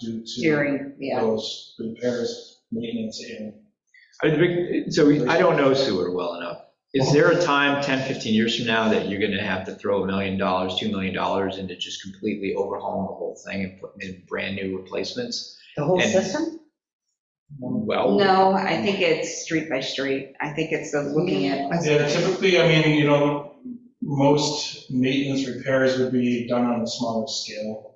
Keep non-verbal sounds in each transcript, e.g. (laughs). due to during, yeah. those repairs, maintenance, and I think- So we- I don't know sewer well enough. Is there a time, 10, 15 years from now, that you're going to have to throw a million dollars, $2 million into just completely overhauling the whole thing and putting in brand-new replacements? The whole And- system? Well, No, I think it's street by street. I think it's the looking at, Yeah, typically, I mean, you know, most maintenance repairs would be done on a smaller scale.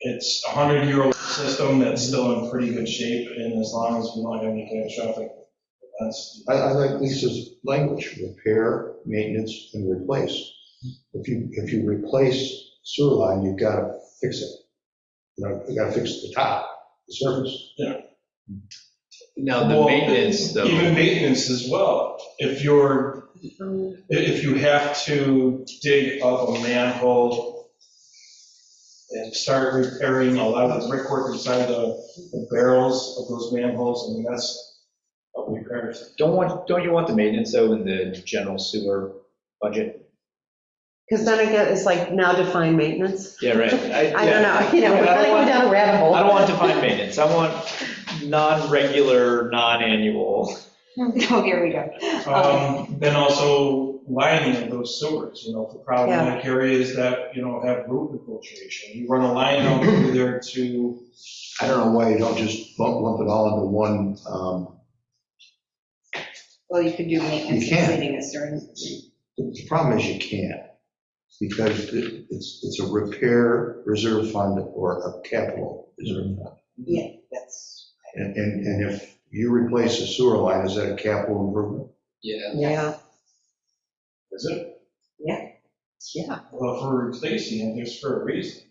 It's a hundred-year-old system that's still in pretty good shape, and as long as we don't have any catastrophic events. I, I like Lisa's language, repair, maintenance, and replace. If you, if you replace sewer line, you've got to fix it. You know, you got to fix the top, the surface. now the Well, maintenance, Even though, maintenance as well. If you're, i- if you have to dig up a manhole and start repairing a lot of the brickwork inside the the barrels of those manholes, I mean, that's a repair. don't want, don't you want the maintenance, though, in the general sewer budget? Because then I get, it's like now define maintenance. Yeah, right. I don't know, (laughs) you know, we're I gonna don't go want- down a rabbit hole. I don't want defined maintenance. I want non-regular, non-annual. (laughs) oh, here we go. Um, Um, Then also lining of those sewers, you know, for problematic areas that, you know, have root infiltration. You run a line out through there to, I don't know why you don't just lump, lump it all into one, um, Well, you could do maintenance You and can. cleaning is during, the problem is you can't. Because it- it's, it's a repair reserve fund or a capital reserve fund. yeah, that's, And, and, and if you replace a sewer line, is that a capital improvement? Yeah. Yeah, is it? yeah. Well, uh, for replacing it, there's for a reason,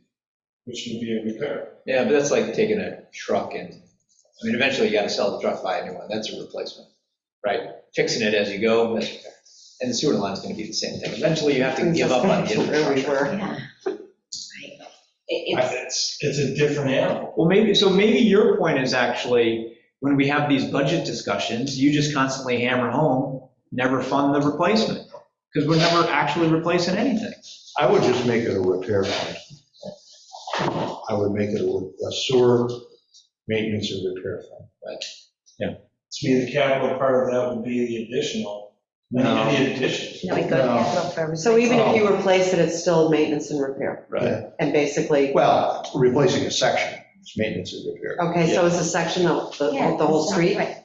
which would be a repair. Yeah, but that's like taking a truck and, I mean, eventually you gotta sell the truck, buy a new one, that's a replacement, right? Fixing it as you go, that's repair. And the sewer line's gonna be the same thing, eventually you have to give up on the infrastructure. it- It's, it's, it's a different animal. Well, maybe, so maybe your point is actually, when we have these budget discussions, you just constantly hammer home, never fund the replacement, because we're never actually replacing anything. I would just make it a repair fund. I would make it a sewer maintenance and repair fund. To me, the capital part of that would be the additional, any- any addition. no, it goes No. capital for everything. So even if you replace it, it's still maintenance and repair. Right. And basically, Well, replacing a section, it's maintenance and repair. okay, so it's a section of the, Yeah, of the whole so- street? right.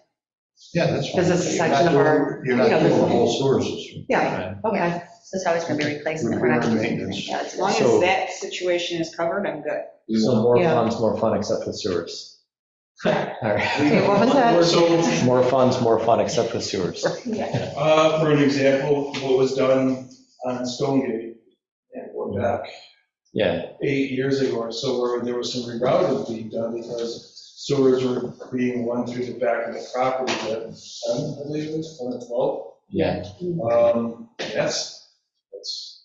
Yeah, that's fine. Because it's a section of You're not our- doing- You're not you know, doing the this- whole sewer system. Yeah, okay. So it's always going to be replacement. We're Repair not and going maintenance. As long as So- that situation is covered, I'm good. So more Yeah. funds, more fun, except with sewers. All right. Okay, what was that? So, More funds, more fun, except with sewers. uh, for an example, what was done on Stonegate, and we're back Yeah, eight years ago or so, where there was some rerouting being done because sewers were being run through the back of the property that, I believe it was, 2012. yeah. Um, Yes, that's,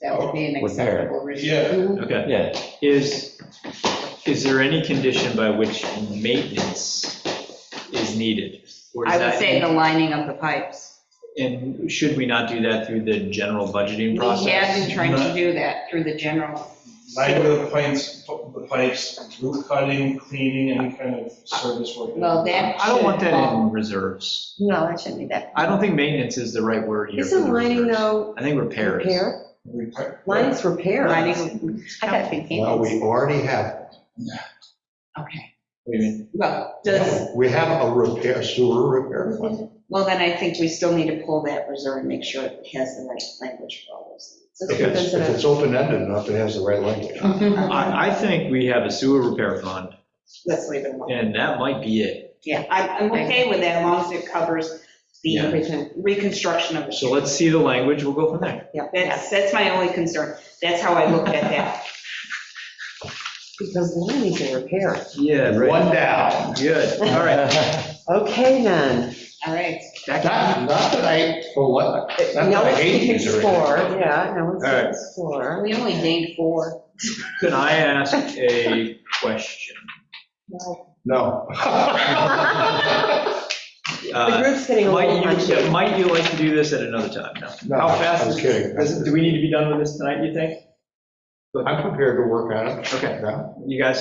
That would be an Repair. acceptable reason. yeah. Okay. Yeah, Is, is there any condition by which maintenance is needed? Or is I would that- say the lining of the pipes. And should we not do that through the general We have budgeting process? been trying to do that through the general Line of the pipes, the pipes, root cutting, cleaning, any kind of service work. Well, that- I don't want that in Um, reserves. No, that shouldn't be that. I don't think maintenance is the right word here. for Isn't the lining reserves. though I think repair is. repair? Repair- Lining's repair. lining. I thought it'd be Well, we maintenance. already have, Okay. What do you mean? Well, does, we have a repair, sewer repair fund. well, then I think we still need to pull that reserve and make sure it has the right language for all those If it's, if it's open-ended enough, it has the right language. things. Um, I, I think we have a sewer repair fund, Let's leave it alone. and that might be it. Yeah, I'm, I'm okay with that as long as it covers the Everything. reconstruction of the So let's see the language, we'll go from there. That's, that's my only concern. That's how I looked at that. Because lining's a repair. Yeah, One (laughs) down. Good, all right. Okay, then. All right. Not, not that I, well, what, Now not that I let's hate these already. explore, yeah, now All right. let's explore. We only gained four. Can I ask a question? (laughs) No. The Uh, group's getting a little Might you, punchy. might you like to do this at another time? No. No, How I fast was is- kidding. Does- Do we need to be done with this tonight, you think? I'm prepared to work on it. Okay, Yeah. you guys